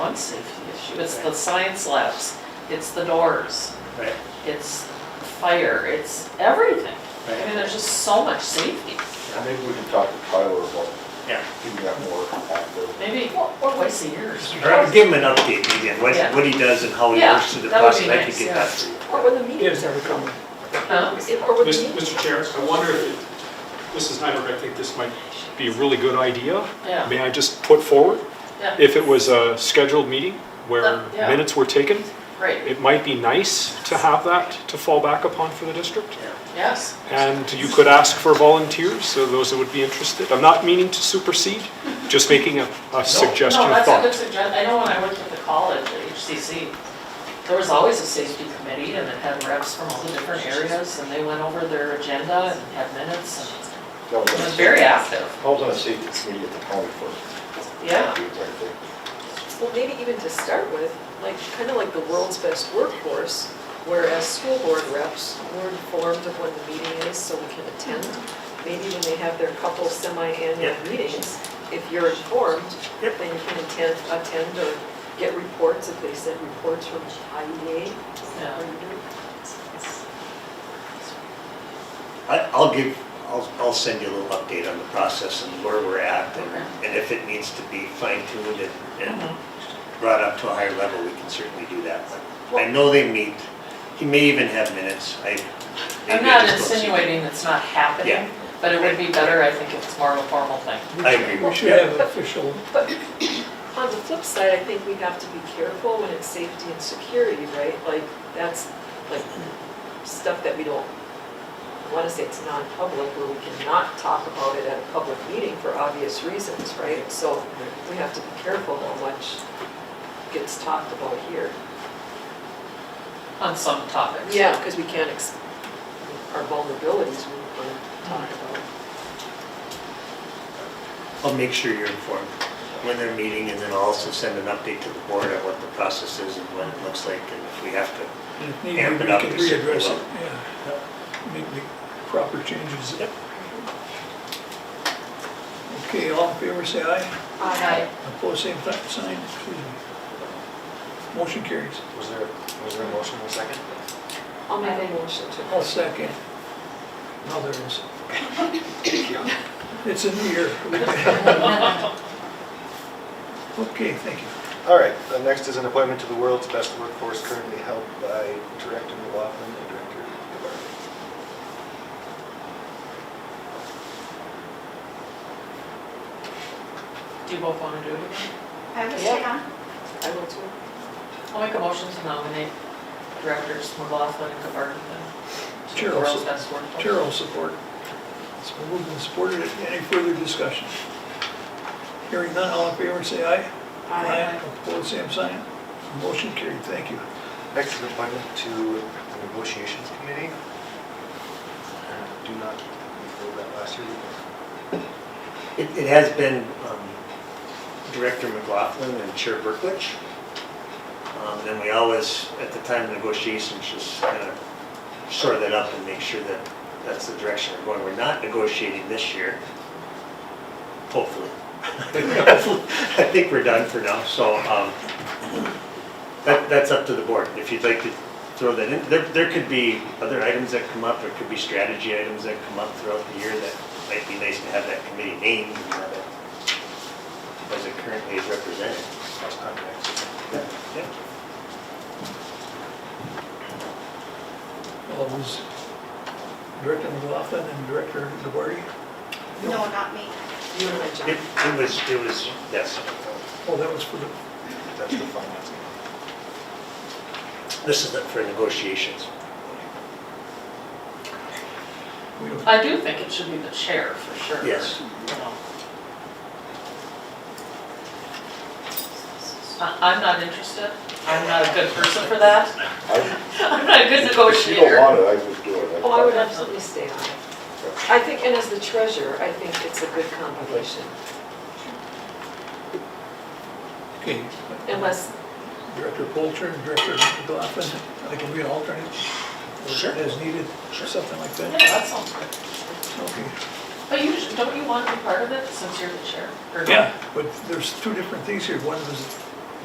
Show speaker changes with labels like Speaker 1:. Speaker 1: balance issue, it's the science labs, it's the doors,
Speaker 2: Right,
Speaker 1: it's fire, it's everything. I mean,
Speaker 2: right,
Speaker 1: there's just so much safety,
Speaker 3: And Maybe we can talk to Tyler about
Speaker 2: yeah.
Speaker 3: getting that more active.
Speaker 1: maybe twice a year.
Speaker 2: All right, Give him an update again, what, what he does and how he
Speaker 1: Yeah,
Speaker 2: works through the
Speaker 1: that would be
Speaker 2: process, I
Speaker 1: nice,
Speaker 2: can
Speaker 1: yeah.
Speaker 2: get that for you.
Speaker 4: Or when the
Speaker 5: Yes.
Speaker 4: meetings ever come.
Speaker 1: Huh?
Speaker 4: Or when the
Speaker 5: Mis-
Speaker 4: meetings.
Speaker 5: Mr. Chair, I wonder if, it- Mrs. Nyberg, I think this might be a really good idea.
Speaker 1: Yeah.
Speaker 5: May I just put forward?
Speaker 1: Yeah.
Speaker 5: If it was a scheduled meeting where
Speaker 1: Uh, yeah.
Speaker 5: minutes were taken,
Speaker 1: Great,
Speaker 5: it might be nice to have that to fall back upon for the district.
Speaker 1: yes,
Speaker 5: And you could ask for volunteers, so those that would be interested. I'm not meaning to supersede, just making a, a suggestion
Speaker 1: no,
Speaker 5: of
Speaker 1: that's a good
Speaker 5: thought.
Speaker 1: suggestion, I know when I worked at the college, at HCC, there was always a safety committee, and it had reps from all the different areas, and they went over their agenda and had minutes, and
Speaker 3: That
Speaker 1: it
Speaker 3: on a
Speaker 1: was very
Speaker 3: safety-
Speaker 1: active,
Speaker 3: That was on a safety committee at the county for.
Speaker 1: Yeah.
Speaker 3: dudes, I think.
Speaker 6: Well, maybe even to start with, like, kind of like the world's best workforce, where as school board reps, we're informed of when the meeting is so we can attend. Maybe when they have their couple semi-annual
Speaker 2: Yeah.
Speaker 6: meetings, if you're informed,
Speaker 2: Yep.
Speaker 6: then you can attend, attend or get reports if they send reports from E IEA.
Speaker 1: Yeah.
Speaker 2: I, I'll give, I'll, I'll send you a little update on the process and where we're at, and, and if it needs to be fine tuned and, and
Speaker 1: Mm-hmm.
Speaker 2: brought up to a higher level, we can certainly do that. But I know they meet, he may even have minutes, I.
Speaker 1: I'm
Speaker 2: maybe I
Speaker 1: not
Speaker 2: just don't see them.
Speaker 1: insinuating it's not happening,
Speaker 2: Yeah.
Speaker 1: but it would be better, I think, if it's more of a formal thing.
Speaker 2: I agree
Speaker 4: We
Speaker 2: with you.
Speaker 4: should have an official,
Speaker 6: On the flip side, I think we have to be careful when it's safety and security, right? Like, that's like stuff that we don't, I want to say it's non-public, where we cannot talk about it at a public meeting for obvious reasons, right? So we have to be careful how much gets talked about here.
Speaker 1: on some topics.
Speaker 6: Yeah, because we can't, ex- our vulnerabilities we can talk about.
Speaker 2: I'll make sure you're informed when they're meeting, and then I'll also send an update to the board on what the process is and what it looks like, and if we have to
Speaker 4: if needed,
Speaker 2: Amp
Speaker 4: we
Speaker 2: it up
Speaker 4: could
Speaker 2: to see
Speaker 4: readdress
Speaker 2: below.
Speaker 4: it, yeah. Make the proper changes. Okay, all in favor, say aye.
Speaker 1: Right.
Speaker 4: Opposed, same type sign, excuse me. Motion carries.
Speaker 3: Was there, was there a motion in a second?
Speaker 6: I'll make a motion to.
Speaker 4: I'll second. Now there is. It's a new year. Okay, thank you.
Speaker 7: All right, uh, next is an appointment to the world's best workforce currently held by Director McLaughlin and Director Gabarty.
Speaker 1: Do you both want to do it again?
Speaker 8: I was
Speaker 6: Yeah.
Speaker 8: down.
Speaker 6: I will too.
Speaker 1: I'll make a motion to nominate directors McLaughlin and Gabarty. to the
Speaker 4: Chair
Speaker 1: World's
Speaker 4: also.
Speaker 1: Best Workplace.
Speaker 4: Chair will support. It's been moved and supported. Any further discussion? Hearing none, all in favor, say aye. Opposed, same sign. Motion carried, thank you.
Speaker 7: Next is an appointment to the negotiations committee. I Do not, we filled that last year.
Speaker 2: It, it has been um, Director McLaughlin and Chair Berklich. Um, And then we always, at the time of negotiations, just kind of shore that up and make sure that that's the direction we're going. We're not negotiating this year, hopefully. I think we're done for now, so um, that, that's up to the board. If you'd like to throw that in, there, there could be other items that come up, there could be strategy items that come up throughout the year that might be nice to have that committee named and have it as it currently is represented.
Speaker 7: Last time, next.
Speaker 2: Yeah.
Speaker 4: All those, Director McLaughlin and Director DeBarty.
Speaker 8: No, not me.
Speaker 6: You and my
Speaker 2: It
Speaker 6: John.
Speaker 2: it was, it was, yes.
Speaker 4: Oh, that was for the,
Speaker 7: That's the finance committee.
Speaker 2: This is for negotiations.
Speaker 4: we don't,
Speaker 1: I do think it should be the chair, for sure.
Speaker 2: Yes.
Speaker 1: You know. I- I'm not interested. I'm not a good person for that.
Speaker 3: I-
Speaker 1: I'm not a good
Speaker 3: If you don't
Speaker 1: negotiator.
Speaker 3: want it, I would do it.
Speaker 6: Oh, I would absolutely stay on it. I think, and as the treasurer, I think it's a good combination,
Speaker 4: okay.
Speaker 6: unless,
Speaker 4: Director Polter and Director McLaughlin, I can be an alternate. or
Speaker 2: Sure.
Speaker 4: As needed, or something like
Speaker 1: Yeah,
Speaker 4: that.
Speaker 1: that sounds good.
Speaker 4: Okay.
Speaker 1: But you, don't you want to be part of it since you're the chair? Or-
Speaker 4: But there's two different things here. One was